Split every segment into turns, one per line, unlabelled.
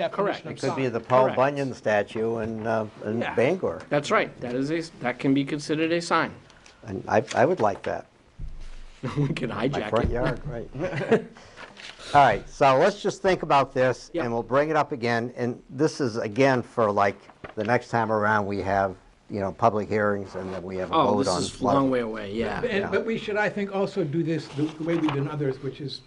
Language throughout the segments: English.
definition of
It
sign.
could be the Paul
Correct.
Bunyan statue in, uh, in
Yeah.
Bangor.
That's right, that is a, that can be considered a sign.
And I, I would like that.
We can
My
hijack
front
it.
yard, right. All right, so let's just think about this,
Yeah.
and we'll bring it up again, and this is, again, for like, the next time around, we have, you know, public hearings, and then we have a
Oh,
vote
this
on.
is a
flood.
long way away, yeah.
And, but we should, I think, also do this the the way we've done others, which is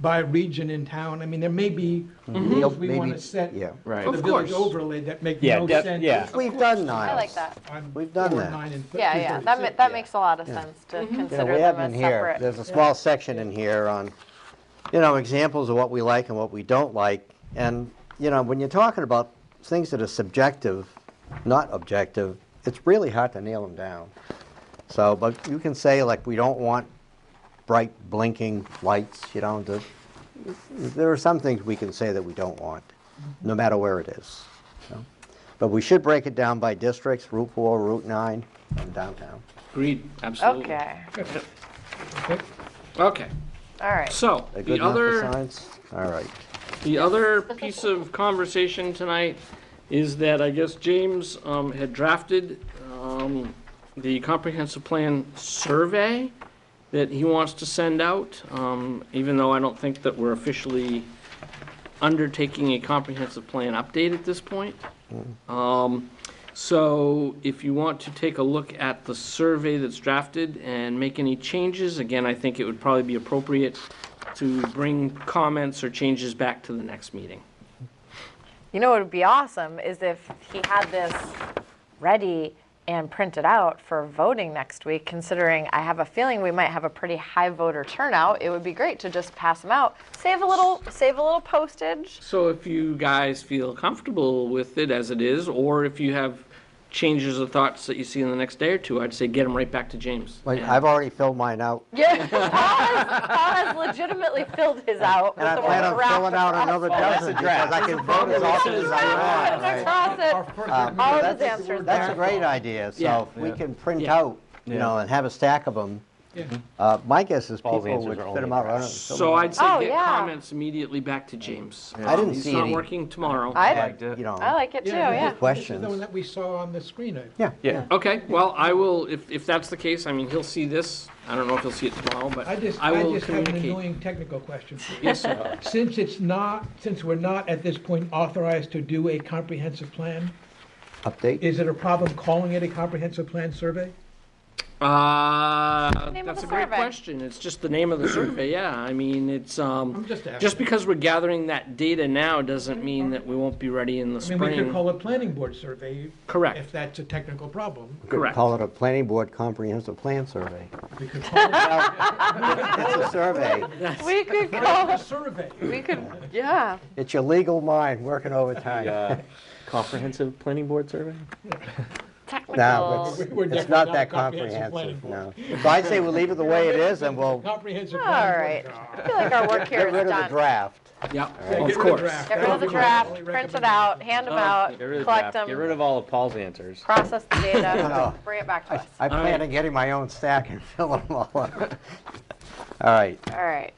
by region in town. I mean, there may be rules we
Maybe-
want to set
yeah.
for
Right.
the
Of
village
course.
overlay that make
Yeah,
no
def-
sense.
yeah.
We've done Niles.
I like that.
on
We've done
four,
that.
nine, and th-
Yeah,
three
yeah, that,
thirty-six.
ma- that makes a lot of sense
You
to
know,
consider
Mm-hmm. we
them
have
as
in here,
separate.
there's a small section in here on, you know, examples of what we like and what we don't like. And, you know, when you're talking about things that are subjective, not objective, it's really hard to nail them down. So, but you can say like, we don't want bright blinking lights, you know, the, there are some things we can say that we don't want, no matter where it is. you know. But we should break it down by districts, Route 4, Route 9, and downtown.
Agreed, absolutely.
Okay,
Okay,
all right.
so,
That
the
good enough for
other,
science? All right.
the other piece of conversation tonight is that I guess James um, had drafted um, the comprehensive plan survey that he wants to send out, um, even though I don't think that we're officially undertaking a comprehensive plan update at this point.
Hmm.
Um, So if you want to take a look at the survey that's drafted and make any changes, again, I think it would probably be appropriate to bring comments or changes back to the next meeting.
You know what would be awesome is if he had this ready and printed out for voting next week, considering I have a feeling we might have a pretty high voter turnout. It would be great to just pass them out, save a little, save a little postage.
So if you guys feel comfortable with it as it is, or if you have changes or thoughts that you see in the next day or two, I'd say get them right back to James.
Like, I've already filled mine out,
Yeah, Paul has, Paul has legitimately filled his out with
and I
the
plan
word
on
wrap
filling out another dozen, because I can vote as often as I want, right?
across it.
Or further than
All
that.
of his answers
Um, That's a
there.
great idea,
Yeah.
so if we can print
Yeah.
out, you know, and have a stack of them,
Yeah.
uh, my guess is people
Paul's answers
would
are
fit
only
them out. right on-
So I'd
Oh,
say get
yeah.
comments immediately back to James.
I didn't
Um,
see
He's not
any.
working tomorrow.
I,
Like,
it.
You know.
I like it too,
Yeah,
yeah.
This is
Questions.
the one that we saw on the screen. I-
Yeah.
Yeah.
Okay, well, I will, if, if that's the case, I mean, he'll see this. I don't know if he'll see it tomorrow, but
I just,
I
I
will
just have an
communicate.
annoying technical question. for you.
Yes, sir.
Since it's not, since we're not at this point authorized to do a comprehensive plan,
Update?
is it a problem calling it a comprehensive plan survey?
Uh,
Name of
that's
the
a great
survey.
question. It's just the name of the survey, yeah. I mean, it's,
I'm
um,
just asking.
just because we're gathering that data now doesn't mean that we won't be ready in the
I mean, we could
spring.
call it planning board survey.
Correct.
If that's a technical problem.
Correct.
Call it a planning board comprehensive plan survey.
We could call it
It's a survey.
We could
a
go,
survey.
we could, yeah.
It's your legal mind working overtime.
Uh, Comprehensive planning board survey?
No,
Technical.
We're- we're
it's, it's
definitely
not
not
that
a comprehensive
comprehensive, no.
planning
So I'd say we leave it the way it is, and we'll
Comprehensive
All
planning
right.
board.
I feel like our work here
get
is
rid of the
done.
draft.
Yeah,
Yeah,
of
get rid
course.
draft.
Get rid of the draft, print it out, hand them out,
Oh, Get rid of the
collect
draft. Get rid
them,
of all of Paul's answers.
process the data,
No.
bring it back to us.
I plan
right.
on getting my own stack and fill them all up. All right,
All right.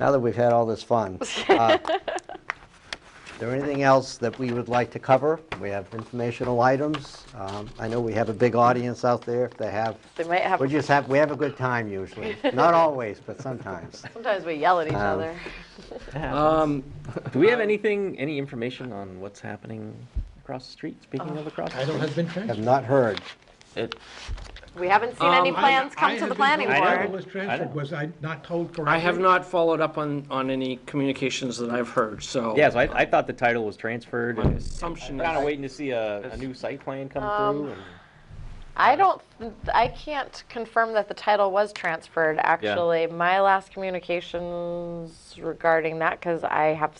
now that we've had all this fun, uh, is there anything else that we would like to cover? We have informational items. Um, I know we have a big audience out there. If they have,
They might have,
we just have, we have a good time usually. Not always, but sometimes.
sometimes we yell at each
Um,
other.
Uh,
Um,
Do we have anything, any information on what's happening across the street? Speaking
Uh,
of across the
I don't
street.
have been
Have
transferred.
not heard.
It-
We haven't seen any
Um,
plans
I- I
come to the
haven't
planning
been told
I
what
know.
Was
board.
transferred, was I not told correctly?
I have not followed up on, on any communications that I've heard, so.
Yeah, so I, I thought the title was transferred
My
and
assumption
kind of
is,
waiting to see a, a new site plan come
Um,
through and.
I don't, I can't confirm that the title was transferred, actually. My last communications regarding that, because I have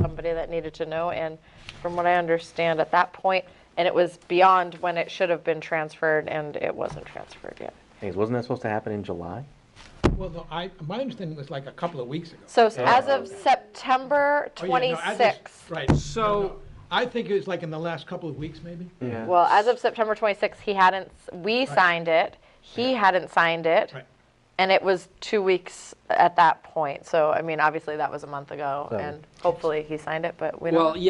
somebody that needed to know, and from what I understand at that point, and it was beyond when it should have been transferred, and it wasn't transferred yet.
Things, wasn't that supposed to happen in July?
Well, no, I, my understanding was like a couple of weeks ago.
So s- as of September
Oh, yeah, no, I just-
26th,
Right. No,
So-
no. I think it was like in the last couple of weeks, maybe?
Yeah.
well, as of September 26th, he hadn't, s- we signed it, he hadn't signed it.
Right.
And it was two weeks at that point, so, I mean, obviously, that was a month ago,
So-
and hopefully he signed it, but we don't.
Well, yeah,